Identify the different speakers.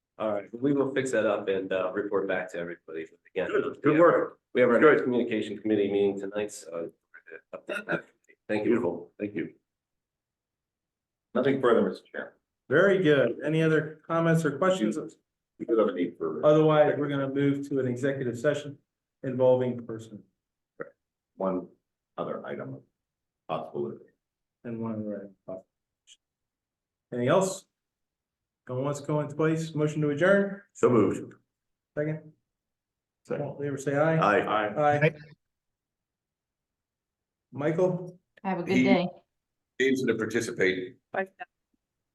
Speaker 1: All right, we will fix that up and uh report back to everybody again.
Speaker 2: Good, good work.
Speaker 1: We have our
Speaker 2: Good.
Speaker 1: next communication committee meeting tonight, so. uh, update that. Thank you, thank you.
Speaker 3: Nothing further, Mr. Chair.
Speaker 2: Very good. Any other comments or questions?
Speaker 3: We do have a need for
Speaker 2: Otherwise, we're gonna move to an executive session involving person
Speaker 3: one other item of possibility.
Speaker 2: and one other. item. Anything else? Going once, going twice, motion to adjourn,
Speaker 3: So moved.
Speaker 2: second,
Speaker 3: Aye.
Speaker 2: all in favor, say aye.
Speaker 3: Aye.
Speaker 2: Aye. Michael?
Speaker 4: Have a
Speaker 3: He-
Speaker 4: good day.
Speaker 3: Needs to participate.
Speaker 4: Bye.